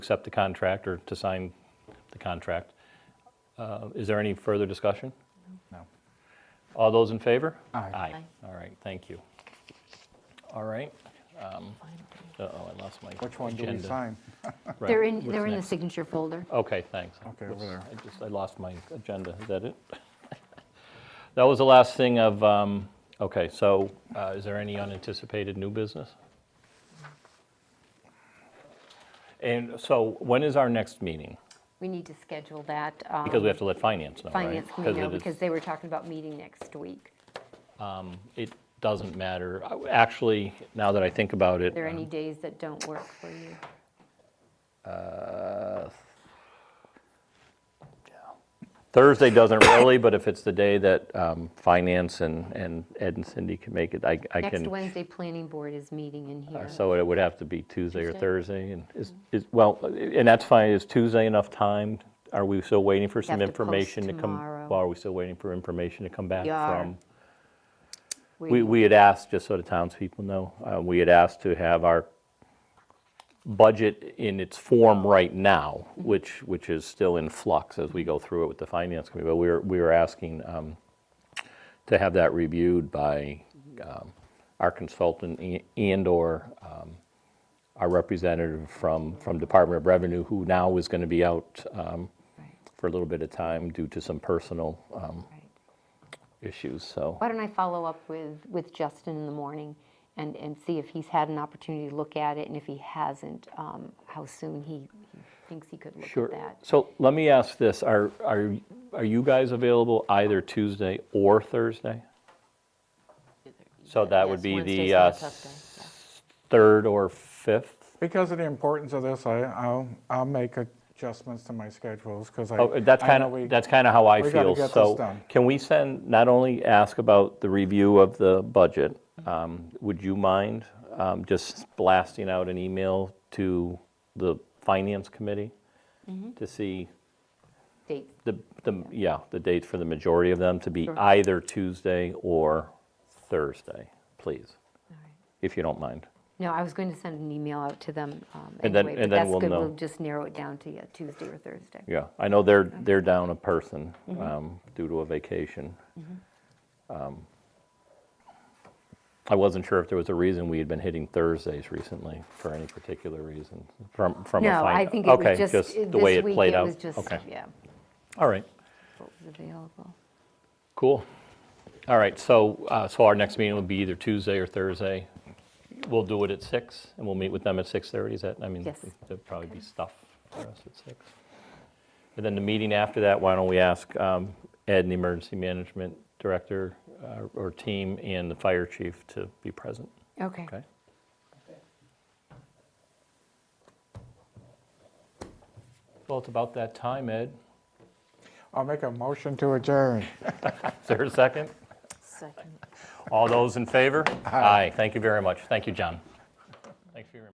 accept the contract or to sign the contract. Uh, Is there any further discussion? No. All those in favor? Aye. Aye. Aye. All right, thank you. All right. um, Uh-oh, I lost my agenda. Which one do we sign? Right, They're in, what's they're in the next? signature folder. Okay, thanks. Okay, over there. I just, I lost my agenda, is that it? That was the last thing of, um, okay, so uh, is there any unanticipated new business? And so when is our next meeting? We need to schedule that. Because um, we have to let finance know, right? Finance committee know, it is- because they were talking about meeting next week. It doesn't matter. I- Actually, now that I think about it. Are there any um, days that don't work for you? Thursday doesn't really, but if it's the day that um, finance and, and Ed and Cindy can make it, I, I can. Next Wednesday, planning board is meeting in here. So it would have to be Tuesday or Tuesday? Thursday, and is, is, well, and that's fine, is Tuesday enough time? Are we still waiting for some have to post information to come? tomorrow. Well, Are we still waiting for information to come back We are. from? We, Waiting. we had asked, just so the townspeople know, uh, we had asked to have our budget in its form right now, which, which is still in flux as we go through it with the finance committee, but we were, we were asking um, to have that reviewed by um, our consultant a- and/or um, our representative from, from Department of Revenue, who now is going to be out um, Right, for a little bit of time due to some personal um, right. issues, so. Why don't I follow up with, with Justin in the morning and, and see if he's had an opportunity to look at it, and if he hasn't, um, how soon he he thinks he could look Sure. at that. So let me ask this, are, are, are you guys available either Tuesday or Thursday? So that would Yes, be the Wednesday's not a tough day, yeah. 3rd or 5th? Because of the importance of this, I, I'll, I'll make adjustments to my schedules, because I. Oh, That's I kind know we- of, that's kind of how I we feel. gotta get this So done. can we send, not only ask about the review of the budget, um, would you mind um, just blasting out an email to the finance committee Mm-hmm. to see Dates. The, the, yeah, the dates for the majority of them to be either Tuesday or Thursday, please, All right. if you don't mind. No, I was going to send an email out to them um, And then- anyway, and but then that's we'll good. know. We'll just narrow it down to yeah, Tuesday or Thursday. Yeah, I know they're, they're down a person Mm-hmm. um, due to a vacation. Um, I wasn't sure if there was a reason we had been hitting Thursdays recently for any particular reason from, from a. No, I fin- think it okay, was just, just it- the way this it week, played it out. was just, Okay, yeah, all right. what was available. Cool. All right, so, uh, so our next meeting will be either Tuesday or Thursday. We'll do it at six, and we'll meet with them at 6:30, is that, I mean, Yes. there'll probably be stuff for us at six. And then the meeting after that, why don't we ask um, Ed, the Emergency Management Director uh, or team, and the Fire Chief to be present, Okay. okay? Well, it's about that time, Ed. I'll make a motion to adjourn. Is there a second? Second. All those in favor? Aye. Thank you very much. Thank you, John. Thanks for your.